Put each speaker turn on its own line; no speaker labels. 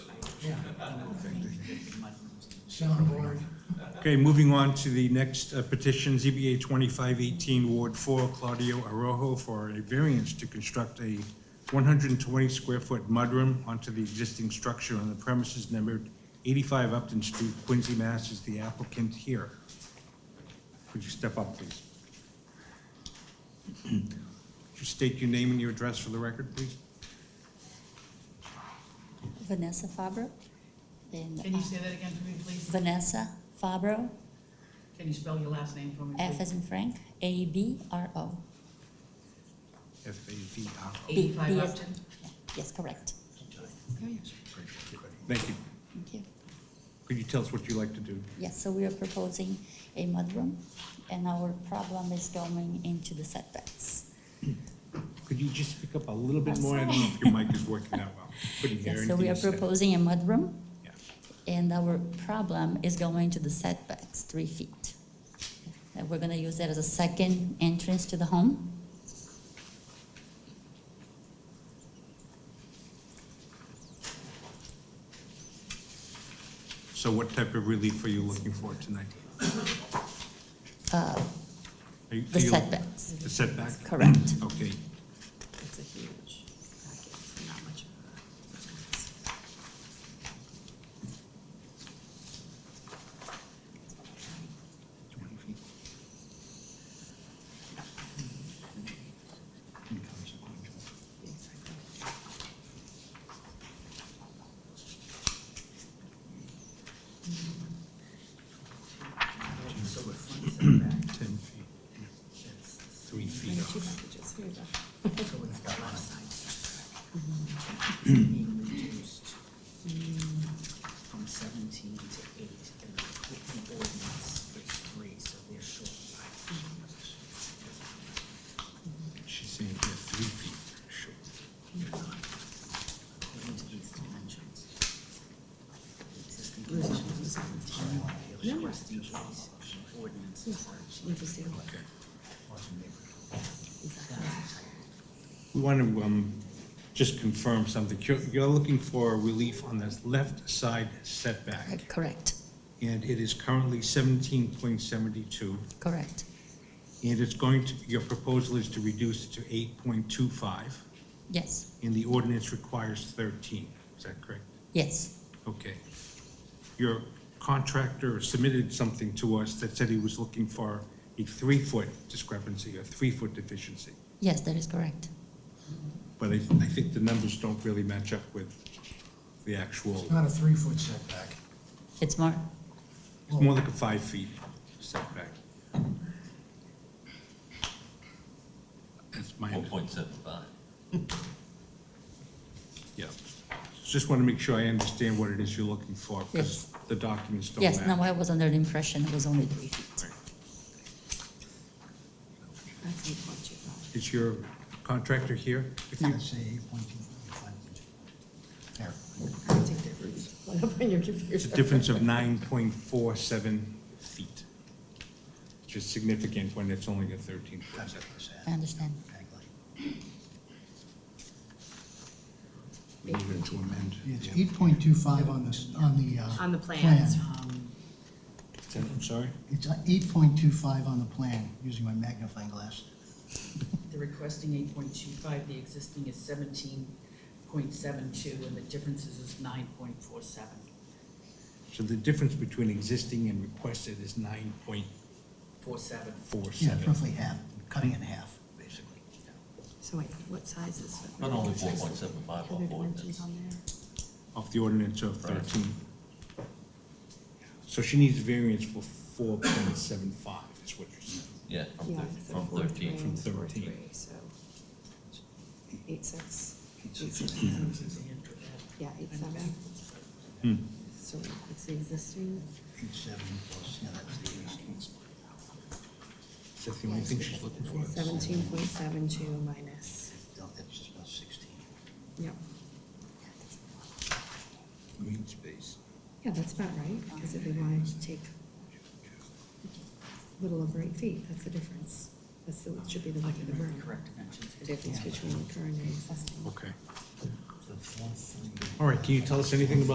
Yeah. Soundboard.
Okay, moving on to the next uh, petition, ZBA 2518, Ward 4, Claudio Arojo, for a variance to construct a 120-square-foot mudroom onto the existing structure on the premises numbered 85 Upton Street, Quincy, Mass. Is the applicant here? Could you step up, please? Could you state your name and your address for the record, please?
Vanessa Fabro. Then,
Can you
uh,
say that again for me, please?
Vanessa Fabro,
Can you spell your last name for me,
F
please?
as in Frank, A B R O.
F-A-V-R.
B-
Eighty-five
B as-
Upton?
Yes, correct.
Thank you.
Thank you.
Could you tell us what you like to do?
Yes, so we are proposing a mudroom, and our problem is going into the setbacks.
Could you just speak up a little bit
I'm
more? I don't know if your mic is working that well. Couldn't hear
Yes,
anything
so we
you
are
said.
proposing a mudroom,
Yeah.
and our problem is going to the setbacks, three feet. And we're gonna use that as a second entrance to the home.
So what type of relief are you looking for tonight?
Uh,
Are you-
The
are you-
setbacks.
The setback?
Correct.
Okay.
It's a huge packet, It's not much of
Ten feet, three feet off.
being reduced from seventeen to eight, and the equipment ordinance is three, so they're short by.
She's saying here three feet, sure.
They're not, according to these dimensions. The Existing dimensions are seventeen, the requesting is ordinance is thirteen.
We want to um, just confirm something. You're- You're looking for relief on this left side setback,
Correct,
and it is currently 17.72.
correct,
And it's going to, your proposal is to reduce it to eight point two five,
yes,
and the ordinance requires thirteen, is that correct?
yes,
Okay. Your contractor submitted something to us that said he was looking for a three-foot discrepancy, a three-foot deficiency.
yes, that is correct.
But I, I think the numbers don't really match up with the actual,
Not a three-foot setback.
It's more,
it's more like a five feet setback. That's my
One
understanding.
point seven five.
Yeah, just want to make sure I understand what it is you're looking for, because
Yes.
the documents don't match.
yes, now I was under the impression it was only three feet.
Is your contractor here with you?
I'd say eight point two five. There.
It's a difference of nine point four seven feet, which is significant when it's only a thirteen foot
That's what
setback.
I
I said.
understand.
We need to amend.
It's eight point two five on the, s- on the, uh.
On the plans.
Um,
I'm sorry?
It's uh, eight point two five on the plan, using my magnifying glass.
The requesting eight point two five, the existing is seventeen point seven two, and the differences is nine point four seven.
So the difference between existing and requested is nine point
Four seven.
four
Yeah,
seven.
roughly half, cutting it in half, basically.
So wait, what size is it?
Not only four point seven five,
Are
but
there
four,
dimensions on there?
Of the ordinance of
Right.
thirteen. So she needs variance for four point seven five, is what you're saying.
yeah, from
Yeah,
thir-
so
from
four
thirteen.
three,
from
four
13.
three, So eight six, yeah, eight seven.
Hmm.
So it's the existing,
Eight seven plus, yeah, that's the existing.
Is that the only thing she's looking for?
seventeen point seven two minus,
No, that's just about sixteen.
yep.
Green space.
Yeah, that's about right, because if they wanted to take a little over eight feet, that's the difference. That's the, should be the width of the room.
Correct dimensions.
The difference between the current and existing.
Okay.
The fourth thing.
All right, can you tell us anything about